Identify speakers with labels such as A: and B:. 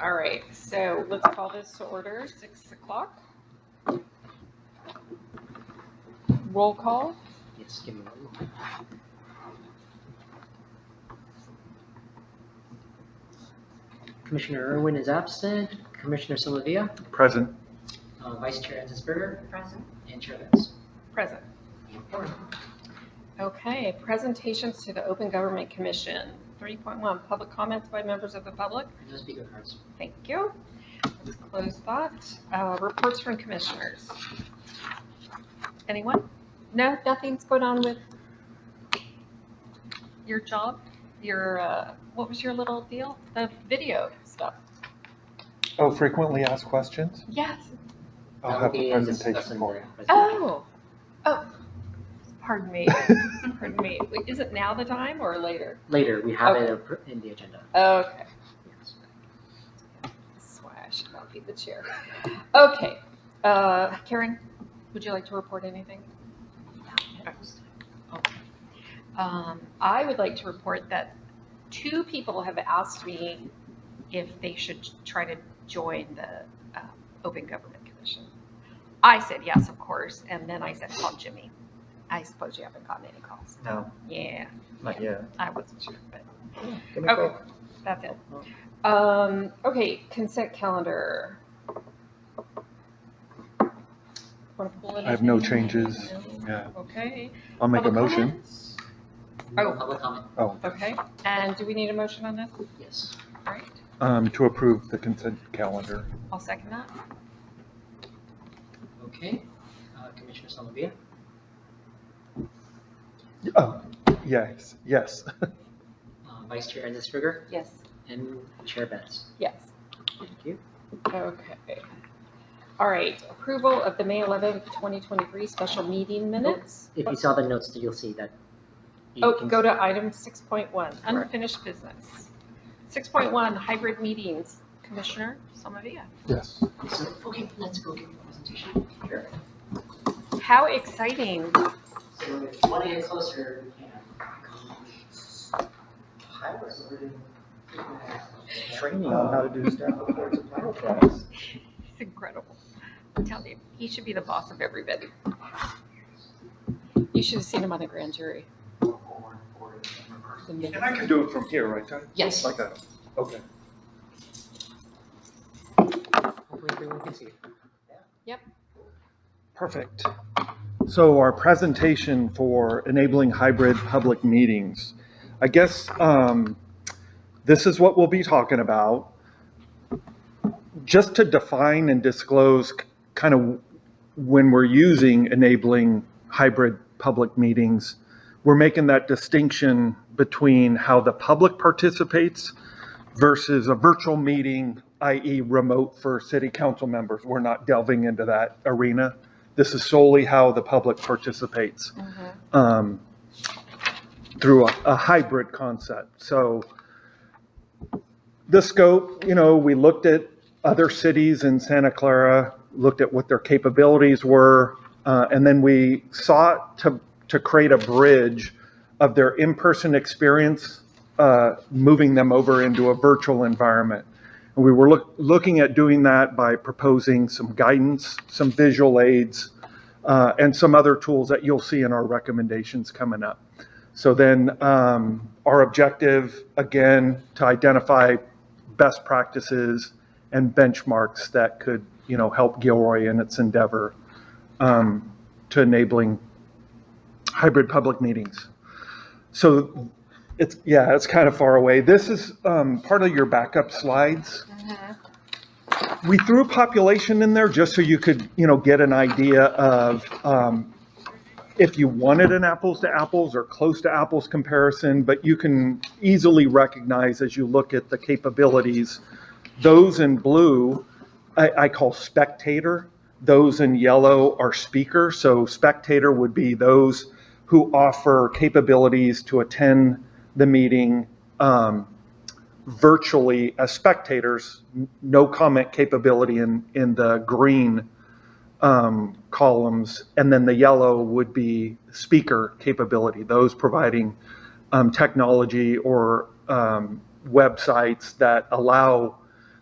A: All right, so let's call this to order, six o'clock. Roll call,
B: Yes, give me one moment. Commissioner Irwin is absent. Commissioner Solovia,
C: Present.
B: uh, Vice Chair Enzisberger,
D: Present.
B: and Chair Evans.
A: present. Okay, presentations to the Open Government Commission. Three point one, public comments by members of the public.
B: No speaker cards.
A: Thank you. Let's close that. Uh, Reports from commissioners. Anyone? No, nothing's going on with your job, your, uh, what was your little deal? The video stuff?
C: Oh, frequently asked questions?
A: Yes.
C: I'll
B: That
C: have
B: will
C: the
B: be discussed
C: presentation
B: in
C: for
B: the presentation.
A: Oh, oh, pardon me, pardon me. Wait, Is it now the time or later?
B: Later, we have it appro- in the agenda.
A: Okay.
B: Yes.
A: That's why I should not be the chair. Okay, uh, Karen, would you like to report anything? Um, I would like to report that two people have asked me if they should try to join the uh, Open Government Commission. I said yes, of course, and then I said, call Jimmy. I suppose you haven't gotten any calls.
C: No,
A: Yeah,
C: not yet.
A: I wasn't sure, but
C: Give me a
A: Okay,
C: call. Oh.
A: that's it. Um, okay, consent calendar. Wanna pull it
C: I have no
A: up?
C: changes.
A: No?
C: Yeah,
A: Okay.
C: I'll make a
A: Public
C: motion.
A: comments?
B: No
A: Oh.
B: Public comment,
C: Oh,
A: Okay, and do we need a motion on this?
B: yes.
A: All right,
C: um, to approve the consent calendar.
A: I'll second that.
B: Okay. Uh, Commissioner Solovia,
C: Oh, yes, yes.
B: uh, Vice Chair Enzisberger,
A: Yes.
B: and Chair Evans.
A: Yes.
B: Thank you.
A: Okay. All right, approval of the May eleventh, twenty twenty-three special meeting minutes.
B: If you saw the notes, you'll see that. you
A: Oh,
B: can-
A: go to item six point one, unfinished business. Six point one, hybrid meetings. Commissioner Somavia.
C: Yes.
B: So, Okay, let's go give the presentation. Sure.
A: How exciting.
B: So if you want to get closer, we can. I was learning
C: Training on how to do stuff.
A: It's incredible. I'm telling you, he should be the boss of everybody. You should have seen him on the grand jury. The minute-
C: And I can do it from here, right, Ty?
A: Yes.
C: Like that, okay.
B: Hopefully everyone can see it.
C: Perfect. So our presentation for enabling hybrid public meetings. I guess um, this is what we'll be talking about. Just to define and disclose kind of when we're using enabling hybrid public meetings, we're making that distinction between how the public participates versus a virtual meeting, i.e. remote for city council members. We're not delving into that arena. This is solely how the public participates um, through a a hybrid concept. So the scope, you know, we looked at other cities in Santa Clara, looked at what their capabilities were, uh, and then we sought to, to create a bridge of their in-person experience, uh, moving them over into a virtual environment. And we were look, looking at doing that by proposing some guidance, some visual aids, uh, and some other tools that you'll see in our recommendations coming up. So then, um, our objective, again, to identify best practices and benchmarks that could, you know, help Gilroy in its endeavor um, to enabling hybrid public meetings. So it's, yeah, it's kind of far away. This is um, part of your backup slides we threw population in there just so you could, you know, get an idea of um, if you wanted an apples to apples or close to apples comparison, but you can easily recognize as you look at the capabilities, those in blue, I, I call spectator. Those in yellow are speaker. So spectator would be those who offer capabilities to attend the meeting um, virtually as spectators, n- no comment capability in, in the green um, columns, and then the yellow would be speaker capability, those providing um, technology or um, websites that allow